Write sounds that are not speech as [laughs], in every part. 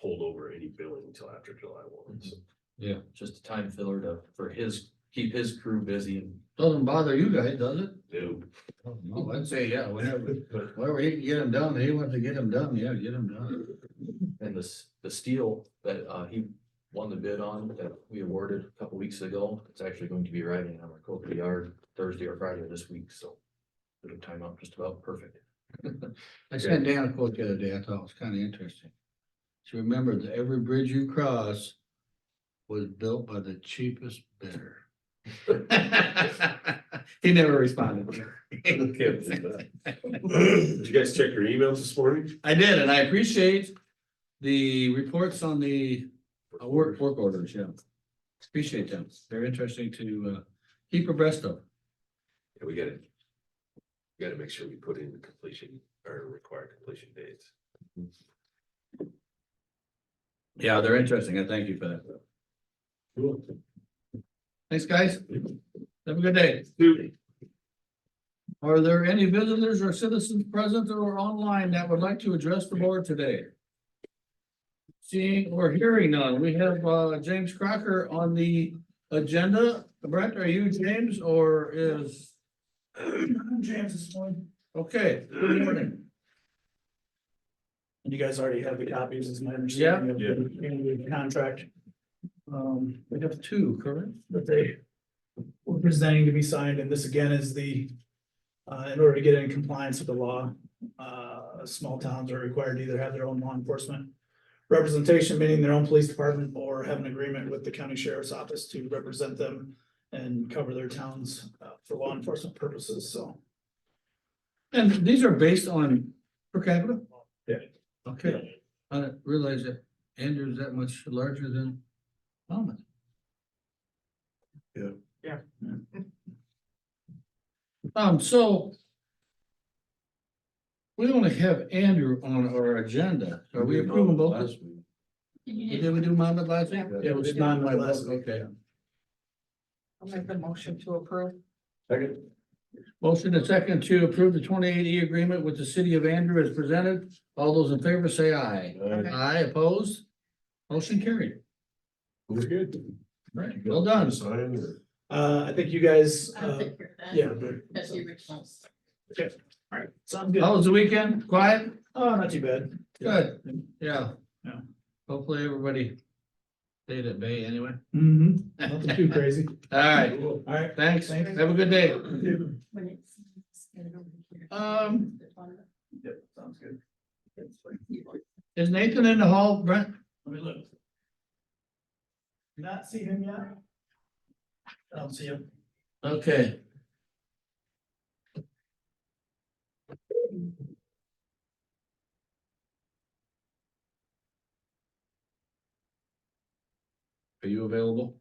hold over any billing until after July one, so. just a time filler to, for his, keep his crew busy and Doesn't bother you guys, does it? no, Oh, No, I'd say, yeah, whenever, But whenever he can get them done, he wants to get them done, yeah, get them done. And this, the steel that uh he won the bid on that we awarded a couple weeks ago, it's actually going to be arriving on our Coca yard Thursday or Friday of this week, so. Bit of time out, just about perfect. I sent Dan a quote the other day, I thought it was kind of interesting. So remember that every bridge you cross was built by the cheapest bidder. [laughs] He never responded. Can't believe that. Did you guys check your emails this morning? I did, and I appreciate the reports on the uh, work, work orders, yeah. Appreciate them. They're interesting to, uh, keep abreast of. Yeah, we gotta. we Gotta make sure we put in the completion or required completion dates. Yeah, they're interesting. I thank you for that. Cool. Thanks, guys. Have a good day. Dude, Are there any visitors or citizens present or online that would like to address the board today? Seeing or hearing none, we have uh James Crocker on the agenda. Brett, are you James or is? I'm James this morning. Okay, good morning. And you guys already have the copies, is my understanding of Yeah. the annual contract. Um, We have two, correct? that they were presenting to be signed, and this again is the, uh, in order to get in compliance with the law, uh, small towns are required to either have their own law enforcement representation, meaning their own police department, or have an agreement with the county sheriff's office to represent them and cover their towns uh, for law enforcement purposes, so. And these are based on per capita? Yeah. Okay, I didn't realize that Andrew's that much larger than Thomas. Yeah. Yeah. [laughs] Um, so we only have Andrew on our agenda. Are we approving both? Did we do Monmouth last week? Yeah. It was not my last, okay. I'll make the motion to approve. Second. Motion and second to approve the twenty-eight E agreement with the city of Andrew as presented. All those in favor say aye. Okay. Aye, opposed? Motion carried. We're good. Right, well done. Sign or- Uh, I think you guys, I'll uh, take care of that. yeah, That's the originals. all right, sounds good. How was the weekend? Quiet? Oh, not too bad. Good. Yeah. Yeah. Hopefully everybody stayed at bay anyway. Mm-hmm, All nothing too crazy. right, [laughs] All right. thanks. Have a good day. When it's- it's gonna go in here. Um, Yep, sounds good. Is Nathan in the hall, Brent? Let me look. Do Not see him yet? I don't see him. Okay. Are you available?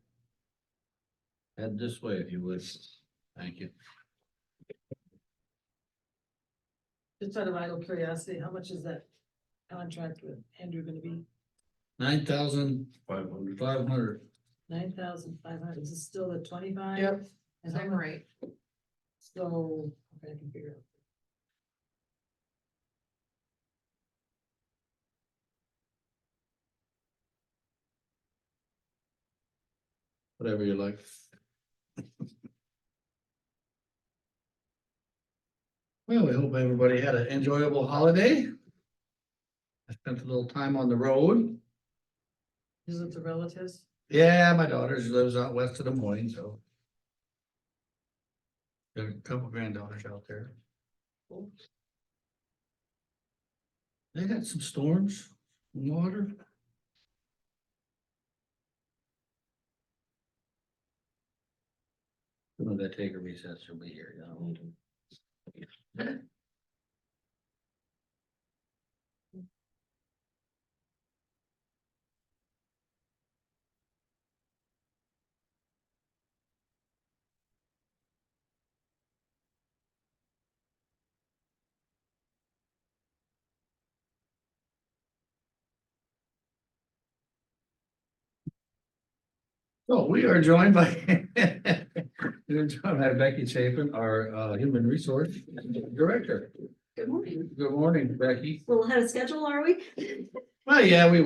Head this way if you would. Thank you. Just out of idle curiosity, how much is that contract with Andrew gonna be? Nine thousand Five hundred. five hundred. Nine thousand five hundred, is it still the twenty-five? Yep. And I'm right. So, okay, I can figure it out. Whatever you like. [laughs] Well, we hope everybody had an enjoyable holiday. I spent a little time on the road. Is it the relatives? Yeah, my daughter she lives out west of Des Moines, so. Got a couple granddaughters out there. Cool. They got some storms, water. When they take a recess, she'll be here, you know. So Oh, we are joined by, [laughs] we're joined by Becky Chapin, our uh, Human Resource Director. Good morning. Good morning, Becky. Well, ahead of schedule, are we? Well, yeah, we